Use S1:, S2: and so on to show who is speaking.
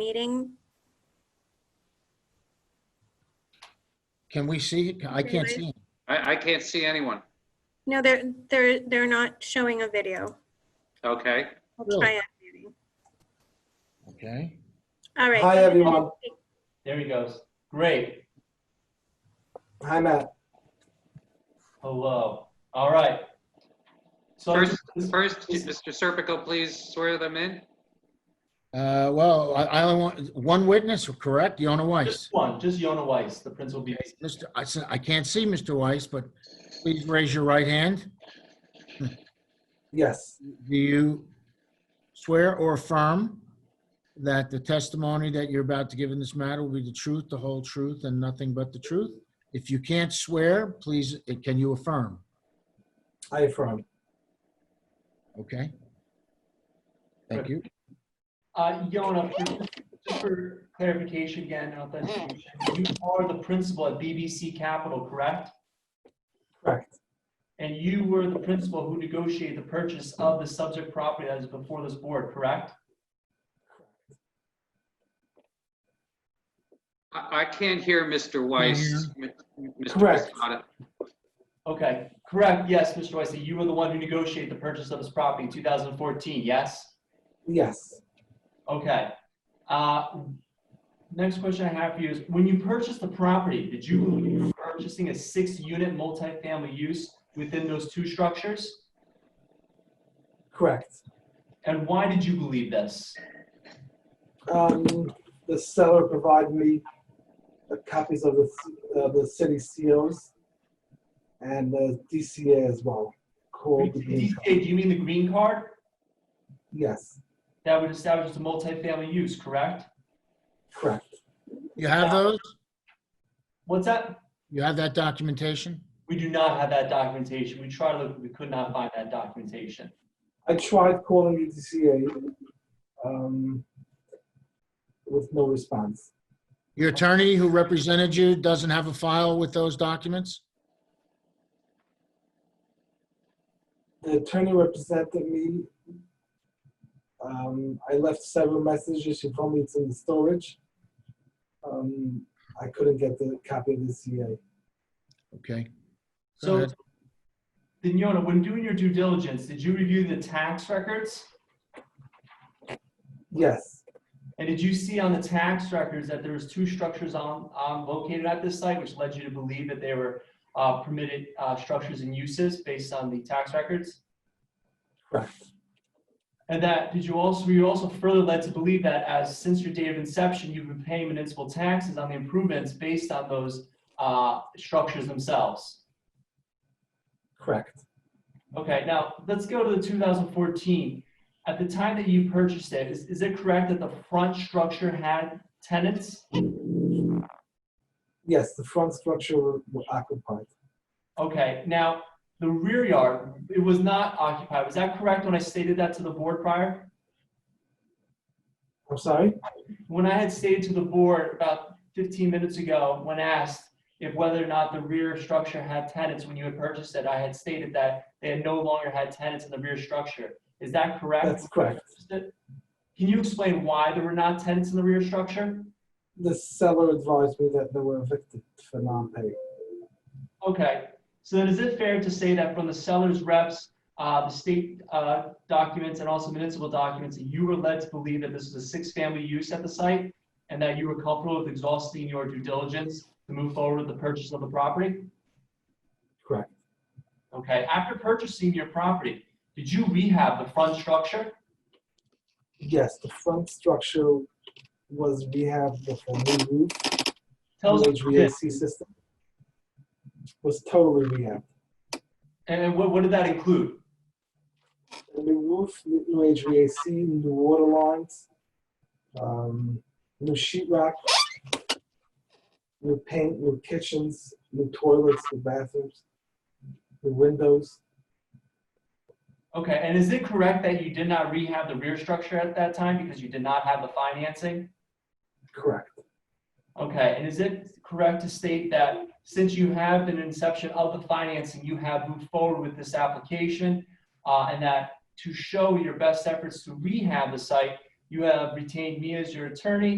S1: meeting.
S2: Can we see? it? I can't see. it.
S3: I, I can't see anyone.
S1: No, they're, they're, they're not showing a video.
S3: Okay.
S1: I'll
S4: Oh.
S2: Really?
S1: try unmuting.
S2: Okay.
S1: All right.
S4: Hi, everyone.
S5: There he goes. Great.
S4: Hi, Matt.
S5: Hello. All right. So
S3: First, first, Mr. Serpico, please swear them in.
S2: Uh, Well, I- I only want, one witness, correct? Yonah
S5: just
S2: Weiss.
S5: one, just Yona Weiss, the principal BPC.
S2: Mr. I s- I can't see Mr. Weiss, but please raise your right hand.
S4: Yes,
S2: Do you swear or affirm that the testimony that you're about to give in this matter will be the truth, the whole truth, and nothing but the truth? If you can't swear, please, eh, can you affirm?
S4: I affirm.
S2: Okay? Thank you.
S5: Uh, Yona, for- just for clarification again, and authentication, you are the principal at BBC Capital, correct?
S4: Correct.
S5: And you were the principal who negotiated the purchase of the subject property that is before this board, correct?
S3: I, I can't hear Mr. Weiss. M- Mr.
S4: Correct.
S3: Piscata.
S5: Okay, correct. Yes, Mr. Weiss, that you were the one who negotiated the purchase of this property in 2014, yes?
S4: Yes,
S5: Okay. Uh, Next question I have for you is, when you purchased the property, did you believe you were purchasing a six-unit multifamily use within those two structures?
S4: correct.
S5: And why did you believe this?
S4: Um, The seller provided me the copies of the, c- of the city COs and the DCA as well. Called the green
S5: DCA,
S4: card.
S5: do you mean the green card?
S4: Yes,
S5: That would establish the multifamily use, correct?
S4: correct.
S2: You have those?
S5: What's that?
S2: You have that documentation?
S5: We do not have that documentation. We tried to look, we could not find that documentation.
S4: I tried calling the DCA um, with no response.
S2: Your attorney who represented you doesn't have a file with those documents?
S4: The attorney represented me. Um, I left several messages. She told me it's in the storage. Um, I couldn't get the copy of the CA.
S2: Okay. Go
S5: So,
S2: ahead.
S5: then Yona, when doing your due diligence, did you review the tax records?
S4: Yes,
S5: And did you see on the tax records that there was two structures on, um, located at this site, which led you to believe that they were, uh, permitted, uh, structures and uses based on the tax records?
S4: correct.
S5: And that, did you also, were you also further led to believe that as, since your date of inception, you've been paying municipal taxes on the improvements based on those, uh, structures themselves?
S4: Correct.
S5: Okay, now, let's go to the two thousand fourteen. At the time that you purchased it, is, is it correct that the front structure had tenants?
S4: Yes, the front structure were were occupied.
S5: Okay, now, the rear yard, it was not occupied. Was that correct when I stated that to the board prior?
S4: I'm sorry?
S5: When I had stated to the board about 15 minutes ago, when asked if whether or not the rear structure had tenants when you had purchased it, I had stated that they had no longer had tenants in the rear structure. Is that correct?
S4: That's correct.
S5: Can you explain why there were not tenants in the rear structure?
S4: The seller advised me that they were evicted for non-pay.
S5: Okay, so then is it fair to say that from the seller's reps, uh, the state, uh, documents and also municipal documents, that you were led to believe that this was a six-family use at the site? And that you were comfortable with exhausting your due diligence to move forward with the purchase of the property?
S4: Correct.
S5: Okay, after purchasing your property, did you rehab the front structure?
S4: Yes, the front structure was rehabbed with a new roof,
S5: Tell us,
S4: new HVAC system. Was totally rehabbed.
S5: and and what, what did that include?
S4: new roof, new new HVAC, new water lines, um, new sheetrock, new paint, new kitchens, new toilets, new bathrooms, new windows.
S5: Okay, and is it correct that you did not rehab the rear structure at that time because you did not have the financing?
S4: Correct.
S5: Okay, and is it correct to state that since you have been inception of the financing, you have moved forward with this application? uh, And that to show your best efforts to rehab the site, You have retained me as your attorney.